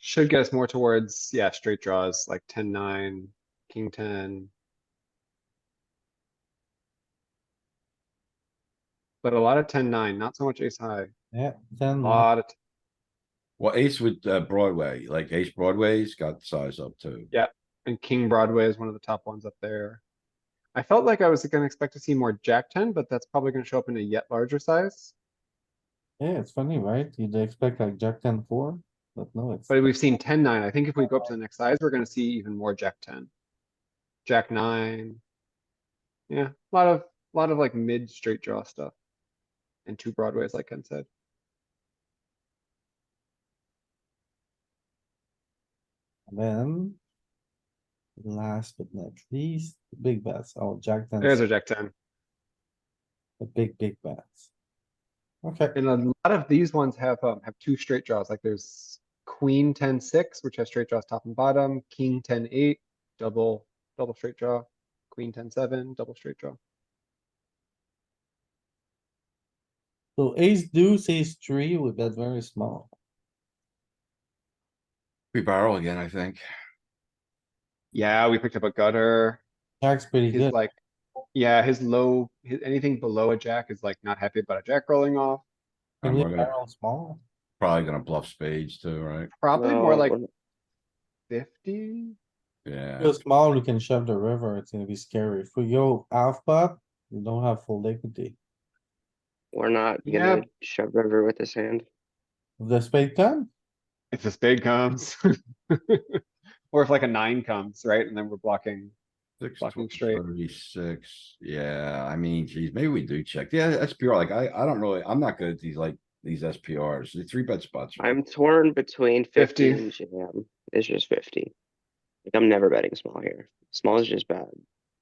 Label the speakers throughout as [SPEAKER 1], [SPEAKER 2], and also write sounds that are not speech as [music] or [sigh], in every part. [SPEAKER 1] Should get us more towards, yeah, straight draws, like ten, nine, king ten. But a lot of ten, nine, not so much ace high,
[SPEAKER 2] yeah, ten,
[SPEAKER 1] a
[SPEAKER 2] nine.
[SPEAKER 1] lot of,
[SPEAKER 3] Well, ace with uh, Broadway, like ace Broadway's got size up too.
[SPEAKER 1] and king Broadway is one of the top ones up there. I felt like I was gonna expect to see more jack ten, but that's probably gonna show up in a yet larger size.
[SPEAKER 2] yeah, it's funny, right? You'd expect like jack ten four, but no, it's.
[SPEAKER 1] But we've seen ten, nine. I think if we go up to the next size, we're gonna see even more jack ten. Jack nine. Yeah, a lot of, lot of like mid straight draw stuff. And two broadways, like Ken said.
[SPEAKER 2] Then. Last but not least, the big bets, oh, jack ten,
[SPEAKER 1] There's our
[SPEAKER 2] the
[SPEAKER 1] jack ten.
[SPEAKER 2] big, big bets. Okay,
[SPEAKER 1] And a lot of these ones have, um, have two straight draws, like there's queen ten six, which has straight draws top and bottom, king ten eight, double, double straight draw, queen ten seven, double straight draw.
[SPEAKER 2] so ace deuce, ace three, we bet very small.
[SPEAKER 3] We barrel again, I think.
[SPEAKER 1] Yeah, we picked up a gutter.
[SPEAKER 2] Jack's pretty
[SPEAKER 1] His
[SPEAKER 2] good,
[SPEAKER 1] like, yeah, his low, his, anything below a jack is like not happy about a jack rolling off.
[SPEAKER 2] can
[SPEAKER 3] And
[SPEAKER 2] we
[SPEAKER 3] we're gonna-
[SPEAKER 2] barrel small?
[SPEAKER 3] Probably gonna bluff spades too, right?
[SPEAKER 1] Probably more
[SPEAKER 4] No,
[SPEAKER 1] like
[SPEAKER 4] we're-
[SPEAKER 1] fifty.
[SPEAKER 3] Yeah,
[SPEAKER 2] Go small, we can shove the river, it's gonna be scary, if we go half pot, we don't have full equity.
[SPEAKER 4] We're not
[SPEAKER 1] Yeah.
[SPEAKER 4] gonna shove river with this hand.
[SPEAKER 2] If The spade ten,
[SPEAKER 1] If the spade comes. [laughs] Or if like a nine comes, right? And then we're blocking.
[SPEAKER 3] six,
[SPEAKER 1] Fucking
[SPEAKER 3] tw-
[SPEAKER 1] straight.
[SPEAKER 3] thirty-six, yeah, I mean, geez, maybe we do check, yeah, SPR, like, I, I don't really, I'm not good at these, like, these SPRs, the three bet spots. are-
[SPEAKER 4] I'm torn between
[SPEAKER 1] 50.
[SPEAKER 4] fifty and jam. It's just fifty. Like I'm never betting small here. Small is just bad.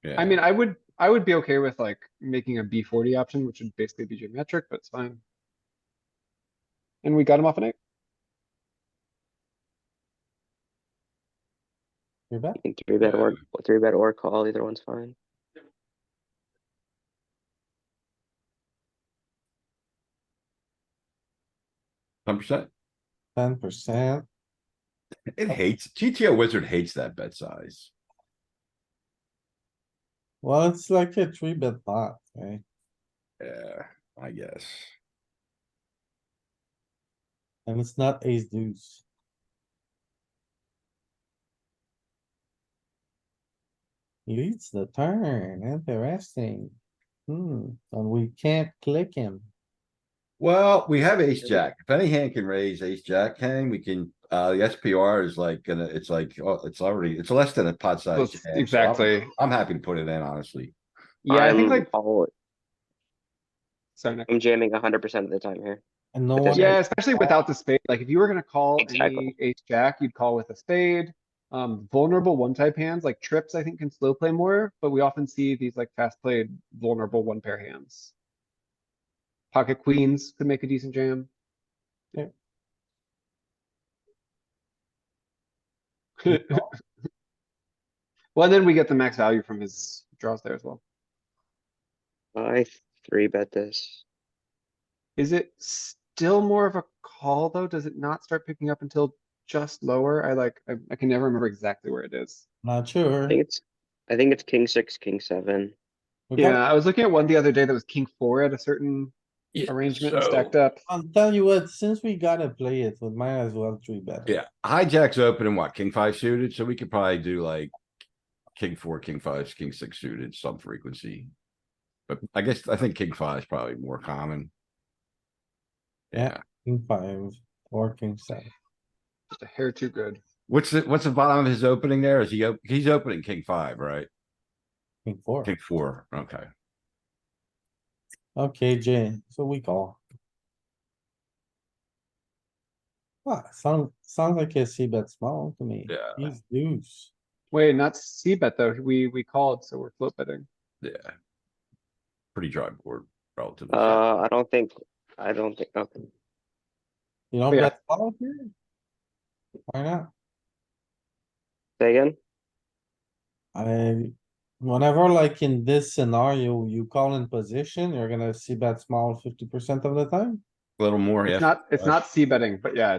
[SPEAKER 1] I mean,
[SPEAKER 3] Yeah.
[SPEAKER 1] I would, I would be okay with like making a B forty option, which would basically be geometric, but it's fine. And we got him off an eight.
[SPEAKER 2] you bet,
[SPEAKER 4] You can three bet or three bet or call, either one's fine.
[SPEAKER 3] Ten percent,
[SPEAKER 2] ten percent,
[SPEAKER 3] it hates, GTO wizard hates that bet size.
[SPEAKER 2] well, it's like a three bet pot, right?
[SPEAKER 3] Yeah, I guess.
[SPEAKER 2] And it's not ace deuce. Leads the turn, interesting. Hmm, and we can't click him.
[SPEAKER 3] Well, we have ace jack. If any hand can raise ace jack hand, we can, uh, the SPR is like, gonna, it's like, oh, it's already, it's less than a pot size.
[SPEAKER 1] That's
[SPEAKER 3] hand, so I'm-
[SPEAKER 1] Exactly.
[SPEAKER 3] I'm happy to put it in, honestly.
[SPEAKER 1] Yeah, I think
[SPEAKER 4] I'm
[SPEAKER 1] like,
[SPEAKER 4] all-
[SPEAKER 1] so next.
[SPEAKER 4] I'm jamming hundred percent of the time here.
[SPEAKER 2] And no
[SPEAKER 4] But
[SPEAKER 2] one,
[SPEAKER 4] that's-
[SPEAKER 1] Yeah, especially without the spade. Like if you were gonna call
[SPEAKER 4] Exactly.
[SPEAKER 1] any ace jack, you'd call with a spade. Um, vulnerable one type hands like trips, I think can slow play more, but we often see these like fast played vulnerable one pair hands. Pocket queens could make a decent jam.
[SPEAKER 2] Yeah.
[SPEAKER 1] [laughs] Well, then we get the max value from his draws there as well.
[SPEAKER 4] I three bet this.
[SPEAKER 1] Is it still more of a call though? Does it not start picking up until just lower? I like, I, I can never remember exactly where it is.
[SPEAKER 2] not sure.
[SPEAKER 4] I think it's, I think it's king six, king seven.
[SPEAKER 2] We got-
[SPEAKER 1] Yeah, I was looking at one the other day that was king four at a certain arrangement and stacked up.
[SPEAKER 2] I'll tell you what, since we gotta play it, we might as well three bet.
[SPEAKER 3] Yeah, hijack's open and what, king five suited, so we could probably do like. King four, king five, king six suited, some frequency. But I guess, I think king five is probably more common. Yeah,
[SPEAKER 2] King five or king seven.
[SPEAKER 1] Just a hair too good.
[SPEAKER 3] what's the, what's the bottom of his opening there? Is he, op- he's opening king five, right?
[SPEAKER 2] King four.
[SPEAKER 3] King four, okay.
[SPEAKER 2] Okay, Jay, so we call. Wow, Ah, sound, sounds like a C bet small to me.
[SPEAKER 3] Yeah.
[SPEAKER 2] He's deuce.
[SPEAKER 1] Wait, not C bet though. We, we called, so we're float betting.
[SPEAKER 3] Yeah. Pretty dry board relative.
[SPEAKER 4] Uh, I don't think, I don't think, okay.
[SPEAKER 2] You don't
[SPEAKER 1] Yeah.
[SPEAKER 2] bet small here? Why not?
[SPEAKER 4] Say again?
[SPEAKER 2] I, whenever like in this scenario, you call in position, you're gonna see bet small fifty percent of the time.
[SPEAKER 3] Little more,
[SPEAKER 1] It's
[SPEAKER 3] yeah.
[SPEAKER 1] not, it's not C betting, but yeah,